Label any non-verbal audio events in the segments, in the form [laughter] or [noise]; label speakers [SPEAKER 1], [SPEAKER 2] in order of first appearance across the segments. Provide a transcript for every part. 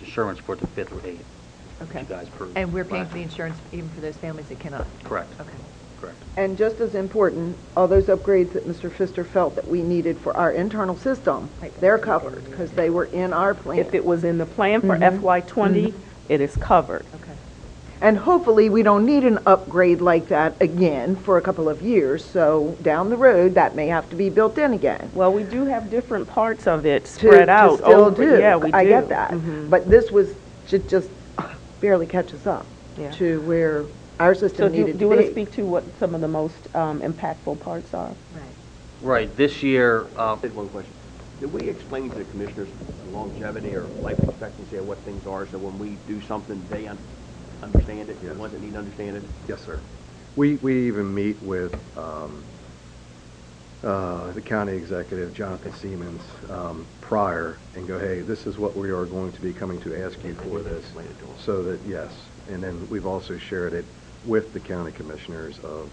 [SPEAKER 1] insurance for the fifth or eighth. which
[SPEAKER 2] Okay.
[SPEAKER 1] You guys approved.
[SPEAKER 2] And we're paying
[SPEAKER 1] last
[SPEAKER 2] for the
[SPEAKER 1] year.
[SPEAKER 2] insurance even for those families that cannot?
[SPEAKER 1] Correct.
[SPEAKER 2] Okay.
[SPEAKER 1] Correct.
[SPEAKER 3] And just as important, all those upgrades that Mr. Pfister felt that we needed for our internal system, they're covered because they were in our plan.
[SPEAKER 4] If it was in the plan for
[SPEAKER 3] Mm-hmm.
[SPEAKER 4] FY '20, it is covered.
[SPEAKER 2] Okay.
[SPEAKER 3] And hopefully, we don't need an upgrade like that again for a couple of years. So down the road, that may have to be built in again.
[SPEAKER 4] Well, we do have different parts of it
[SPEAKER 3] to-
[SPEAKER 4] spread
[SPEAKER 3] to
[SPEAKER 4] out.
[SPEAKER 3] still
[SPEAKER 4] over-
[SPEAKER 3] do.
[SPEAKER 4] Yeah, we do. Mm-hmm.
[SPEAKER 3] I get that. But this was, ju- just barely catches up
[SPEAKER 4] Yeah.
[SPEAKER 3] to where our
[SPEAKER 4] So
[SPEAKER 3] system
[SPEAKER 4] do
[SPEAKER 3] needed
[SPEAKER 4] do you want to
[SPEAKER 3] to be.
[SPEAKER 4] speak to what some of the most um, impactful parts are?
[SPEAKER 2] Right.
[SPEAKER 1] Right, this year,
[SPEAKER 2] [laughs]
[SPEAKER 5] Um,
[SPEAKER 1] uh,
[SPEAKER 6] I had one question. Did we explain to the commissioners longevity or life expectancy of what things are, so when we do something, they un- understand it, the ones that need to understand it?
[SPEAKER 5] Yes, sir. We, we even meet with um, uh, the county executive, Jonathan Siemens, um, prior and go, hey, this is what we are going to be coming to ask you for this.
[SPEAKER 6] Explain it to 'em.
[SPEAKER 5] So that, yes. And then we've also shared it with the county commissioners of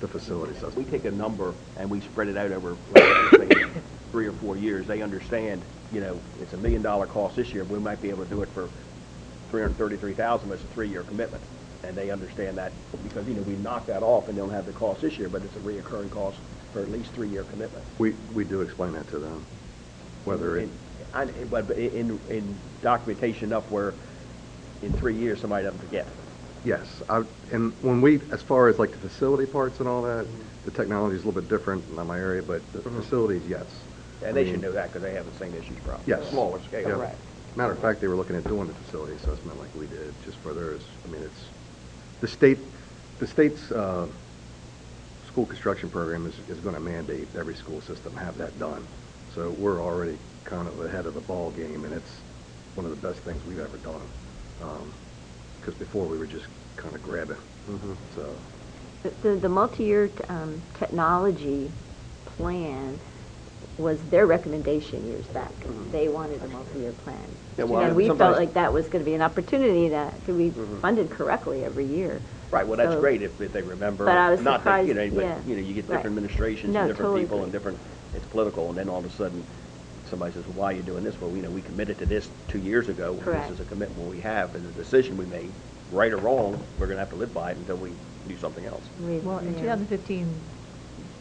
[SPEAKER 5] the facilities.
[SPEAKER 6] If we take a number and we spread it out over, like, say, three or four years, they understand, you know, it's a million dollar cost this year, but we might be able to do it for three hundred thirty-three thousand, it's a three-year commitment. And they understand that, because, you know, we knock that off and they don't have the cost this year, but it's a reoccurring cost for at least three-year commitment.
[SPEAKER 5] We, we do explain that to them, whether it,
[SPEAKER 6] In- I- But but in, in documentation enough where in three years, somebody doesn't forget.
[SPEAKER 5] yes. I- And when we, as far as like the facility parts and all that, the technology is a little bit different in my area, but the facilities, yes.
[SPEAKER 6] And they should know that because they have the same issues probably.
[SPEAKER 5] Mm-hmm. Yes.
[SPEAKER 6] Smaller
[SPEAKER 5] Yeah.
[SPEAKER 6] scale.
[SPEAKER 5] Matter of fact, they were looking at doing the facility assessment like we did, just for theirs. I mean, it's, the state, the state's, uh, school construction program is, is gonna mandate every school system have that done. So we're already kind of ahead of the ball game, and it's one of the best things we've ever done. Um 'cause cause before we were just kinda grabbing,
[SPEAKER 6] Mm-hmm.
[SPEAKER 5] so.
[SPEAKER 7] The- The, the multi-year um, technology plan was their recommendation years back. They wanted a multi-year plan.
[SPEAKER 6] Yeah, well,
[SPEAKER 7] And we felt
[SPEAKER 6] sometimes-
[SPEAKER 7] like that was going to be an opportunity to, to be
[SPEAKER 4] Mm-hmm.
[SPEAKER 7] funded correctly every year.
[SPEAKER 6] Right, well, that's
[SPEAKER 7] So-
[SPEAKER 6] great if, if they remember.
[SPEAKER 7] But I was
[SPEAKER 6] Not that, you know,
[SPEAKER 7] surprised, yeah.
[SPEAKER 6] but, you know, you get different
[SPEAKER 7] Right.
[SPEAKER 6] administrations
[SPEAKER 7] No,
[SPEAKER 6] and different
[SPEAKER 7] totally
[SPEAKER 6] people and
[SPEAKER 7] agree.
[SPEAKER 6] different, it's political, and then all of a sudden, somebody says, well, why are you doing this? Well, you know, we committed to this two years ago. and
[SPEAKER 7] Correct.
[SPEAKER 6] This is a commitment we have, and the decision we made, right or wrong, we're gonna have to live by it until we do something else.
[SPEAKER 7] We-
[SPEAKER 2] Well, in
[SPEAKER 7] yeah.
[SPEAKER 2] 2015,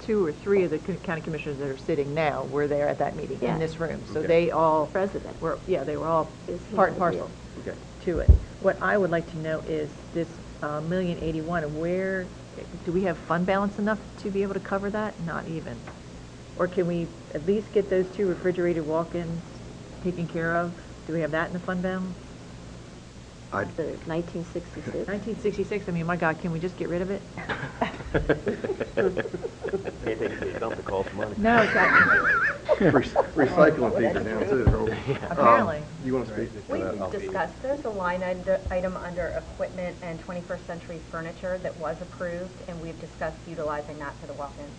[SPEAKER 2] two or three of the co- county commissioners that are sitting now were there at that meeting
[SPEAKER 7] Yeah.
[SPEAKER 2] in this room. So
[SPEAKER 6] Okay.
[SPEAKER 2] they all.
[SPEAKER 7] President.
[SPEAKER 2] Were, yeah, they were all
[SPEAKER 7] Is he
[SPEAKER 2] part and
[SPEAKER 7] not here?
[SPEAKER 2] parcel
[SPEAKER 6] Okay.
[SPEAKER 2] to it. What I would like to know is this uh, million eighty-one, where, do we have fund balance enough to be able to cover that? Not even. Or can we at least get those two refrigerated walk-ins taken care of? Do we have that in the fund balance?
[SPEAKER 5] I,
[SPEAKER 7] The 1966.
[SPEAKER 2] Nineteen sixty-six, I mean, my God, can we just get rid of
[SPEAKER 4] [laughs]
[SPEAKER 2] it?
[SPEAKER 6] Can't take it to the dump, it costs money.
[SPEAKER 2] No, exactly.
[SPEAKER 5] [laughs] recycling fees are
[SPEAKER 6] [laughs]
[SPEAKER 5] down too. Um,
[SPEAKER 2] Apparently.
[SPEAKER 5] You wanna speak to
[SPEAKER 8] We
[SPEAKER 5] that? I'll-
[SPEAKER 8] discussed, there's a line und- item under equipment and 21st century furniture that was approved, and we've discussed utilizing that for the walk-ins.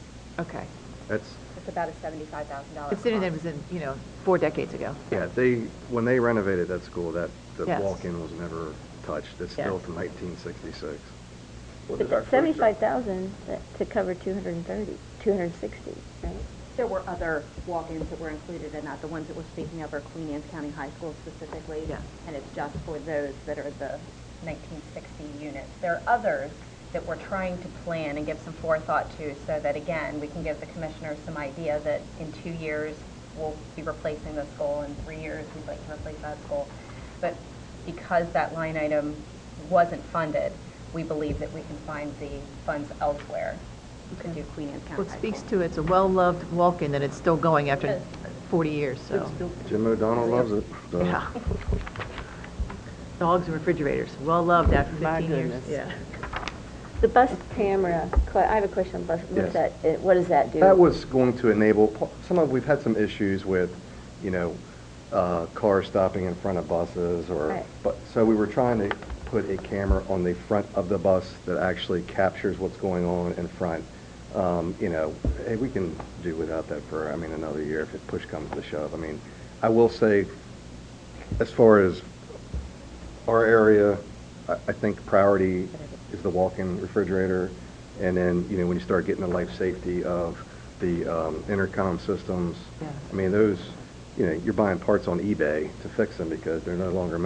[SPEAKER 2] okay.
[SPEAKER 5] That's,
[SPEAKER 8] It's about a $75,000.
[SPEAKER 2] Considering that it was
[SPEAKER 8] cost.
[SPEAKER 2] in, you know, four decades ago.
[SPEAKER 5] Yeah, they, when they renovated that school, that, the
[SPEAKER 2] Yes.
[SPEAKER 5] walk-in was never touched. It's still
[SPEAKER 2] Yes.
[SPEAKER 5] from 1966.
[SPEAKER 6] Well, this is our
[SPEAKER 7] But
[SPEAKER 6] first-
[SPEAKER 7] 75,000 that- to cover 230, 260, right?
[SPEAKER 9] There were other walk-ins that were included in that. The ones that we're speaking of are Queen Anne's County High School specifically.
[SPEAKER 2] Yeah.
[SPEAKER 9] And it's just for those that are the
[SPEAKER 8] 1960 units. There are others that we're trying to plan and give some forethought to, so that, again, we can give the commissioners some idea that in two years, we'll be replacing this goal, in three years, we'd like to replace that goal. But because that line item wasn't funded, we believe that we can find the funds elsewhere
[SPEAKER 9] to do Queen Anne's County
[SPEAKER 2] Well,
[SPEAKER 9] High
[SPEAKER 2] it
[SPEAKER 9] School.
[SPEAKER 2] speaks to, it's a well-loved walk-in that it's still going after
[SPEAKER 8] Yes.
[SPEAKER 2] 40 years, so.
[SPEAKER 5] Jim O'Donnell loves it. so-
[SPEAKER 2] Yeah. Dogs and refrigerators, well-loved after
[SPEAKER 4] My
[SPEAKER 2] 15 years.
[SPEAKER 4] goodness.
[SPEAKER 2] Yeah.
[SPEAKER 7] The bus camera, que- I have a question on bus, what
[SPEAKER 5] Yes.
[SPEAKER 7] does that, eh, what does that do?
[SPEAKER 5] That was going to enable, pa- some of, we've had some issues with, you know, uh, cars stopping in front of buses or,
[SPEAKER 7] Right.
[SPEAKER 5] but, so we were trying to put a camera on the front of the bus that actually captures what's going on in front. Um, You know, hey, we can do without that for, I mean, another year if it push comes to shove. I mean, I will say, as far as our area, I, I think priority is the walk-in refrigerator. And then, you know, when you start getting the life safety of the um, intercom systems, I mean, those, you know, you're buying parts on eBay to fix them because they're no longer